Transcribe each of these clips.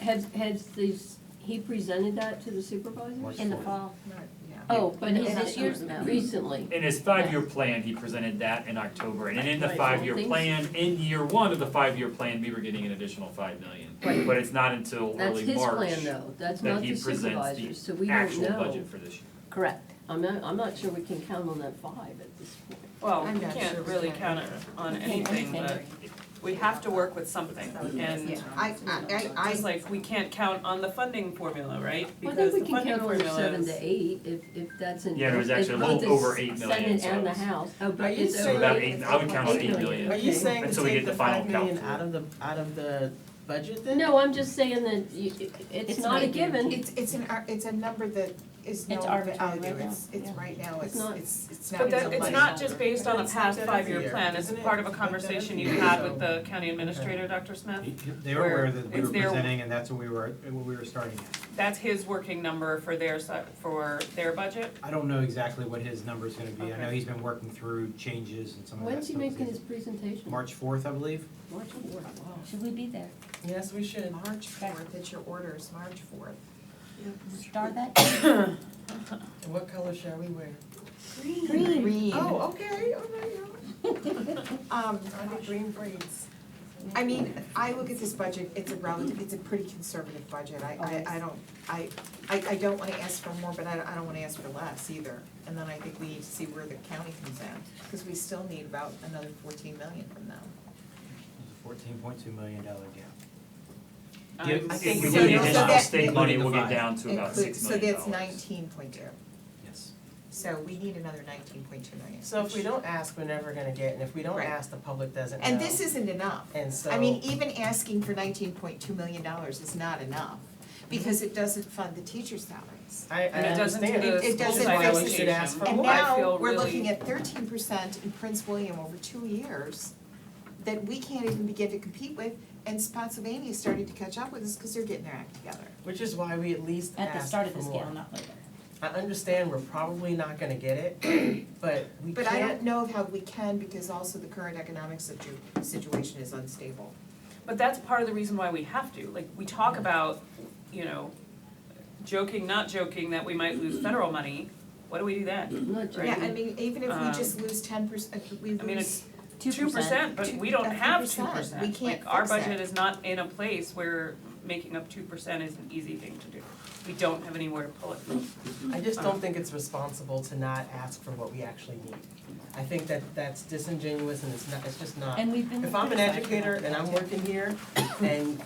Has, has these, he presented that to the supervisors? What? in the fall. Oh, but No, in not this year's, no. recently. In his five-year plan, he presented that in October, and in the Right, five-year things- plan, in year one of the five-year plan, we were getting an additional five million. Right. But it's not until That's early his March plan though, that's that not he the presents supervisors, so we the don't actual know. budget for this year. Correct. I'm not, I'm not sure we can count on that five at this point. Well, I'm we not sure can't we really can. count it on anything, but we have to work with something, and I, I, I, just like, we can't count on the funding formula, Well, I right? think Because we the can funding count on the formula seven is. to eight, if, if that's in. Yeah, it was if actually a both little the over eight million, Senate and the so- House, oh, Are but you it's saying- over. About eight. eight, I would count on Eight eight million. million. Are you saying And to so we take get the the final five million count. out of the, out of the budget then? No, I'm just saying that you, it's It's not a not given, it's, it's an, ar- it's a number that is no It's arbitrary value, right it's, now, it's yeah. right now, It's it's, not- it's, it's not. But a that, it's budget. not just based on a It's not past that five-year every plan, year, it's isn't it? part of a It's not that conversation every you year, had so- with the county administrator, Dr. Smith. They were aware that we Where were it's their- presenting and that's what we were, what we were starting at. That's his working number for their, si- for their budget. I don't know exactly what his number's gonna be. I know Okay. he's been working through changes and some of that when's he stuff. making his presentation? March fourth, I believe. March fourth, wow. Should we be there? Yes, we should. March fourth, it's your orders, March fourth. Star that? And What color shall we wear? Green. Green. Oh, okay, all right, all right. Um, I did green braids. I mean, I look at this budget, it's a relative, it's a pretty conservative budget, I, I, I don't, I, I, I don't wanna ask for more, but I, I don't wanna ask for less either. And then I think we need to see where the county comes in, cause we still need about another fourteen million from them. It's a fourteen point two million dollar gap. Um, Give- I If think we so. get So additional that- state money, we'll get down to about Include- six million dollars. So that's nineteen point two, Yes. so we need another nineteen point two million. So if we don't ask, we're never gonna get, and if we don't Right. ask, the public doesn't know. And this isn't enough. And so. I mean, even asking for nineteen point two million dollars is not enough, because it doesn't fund the teachers' salaries. I, I And it doesn't do understand. the It- it school doesn't side That's why we fix should ask for education. And more. I feel now, we're really- looking at thirteen percent in Prince William over two years that we can't even begin to compete with, and Spotsylvania is starting to catch up with us, because they're getting their act together. Which is why we at least At the ask start of for the more. scale, not later. I understand we're probably not gonna get it, but we But I don't can't, know how we can, because also the current economic situ- situation is unstable. But that's part of the reason why we have to, like, we talk about, you know, joking, not joking, that we might lose federal money, what do we do then? I'm not Right. Yeah, joking. I mean, even if we Um, just lose ten percent, we I mean, lose it's two percent, but Two- we don't that's have two 2%. percent. We can't Like, our fix that. budget is not in a place where making up two percent is an easy thing to do. We don't have anywhere to pull it from. I just don't think it's responsible to not ask for what we actually need. I think that that's disingenuous and it's not, it's just not. And we've been. If I'm an criticized educator about and I'm that. working here and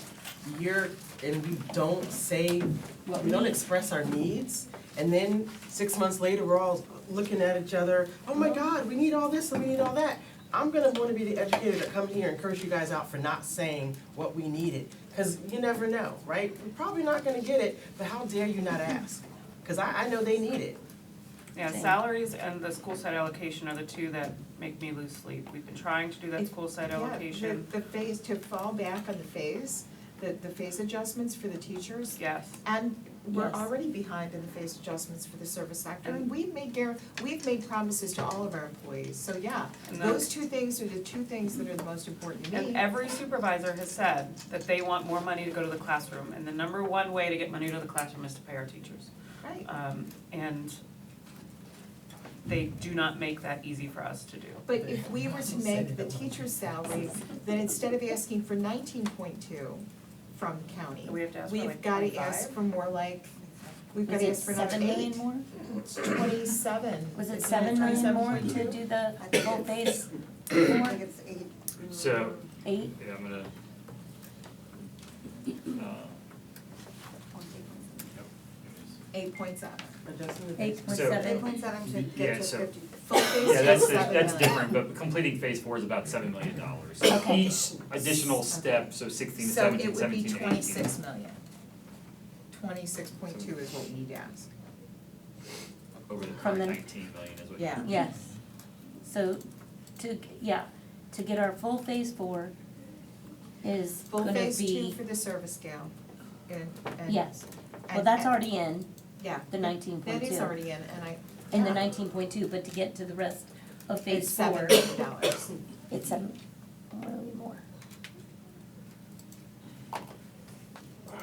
you're, and we don't say, What we don't we- express our needs, and then six months later, we're all looking at each other, oh my God, we need all this and we need all that. I'm gonna wanna be the educator that comes here and curse you guys out for not saying what we needed, cause you never know, right? We're probably not gonna get it, but how dare you not ask? Cause I, I know they need it. Yeah, Same. salaries and the school site allocation are the two that make me lose sleep. We've been trying to do that It- school site Yeah, the- allocation, The phase, to fall back on the phase, the, the phase adjustments for the teachers. yes. And we're Yes. already behind in the phase adjustments for the service sector, and we've made gar, we've made promises to all of our employees, so yeah. And Those two things are the two things that are the most important to me. And every supervisor has said that they want more money to go to the classroom, and the number one way to get money to the classroom is to pay our teachers. Right, Um, and they do not make that easy for us to do. but if we were to make the teacher's salaries, then instead of asking for nineteen point two from the county, We have to ask for we've like gotta ask 25? for more like, we've Was gotta it ask for another eight. seven million more? It's Twenty-seven. Was it Isn't seven million more to 27? do the whole phase I four, think it's eight. So, eight? yeah, I'm gonna. uh, Eight point seven. Eight point So- seven? point seven should get Yeah, to so- Full phase Yeah, that's, two, seven that's million. different, but completing phase four is about seven million dollars. Okay. Each additional step, so sixteen to So seventeen, it would be seventeen to eighteen. twenty-six million. Twenty-six point two is what we need to ask. Over the From current the- nineteen million is what. you- Yeah. Yes. So to, yeah, to get our full phase four is Full gonna phase two be, for the service scale and, and. yes. Well, and- that's and- already in, Yeah. the nineteen point That two. is already in and I. In the nineteen point two, but to get to the rest of It's phase four, seven million dollars. it's seven,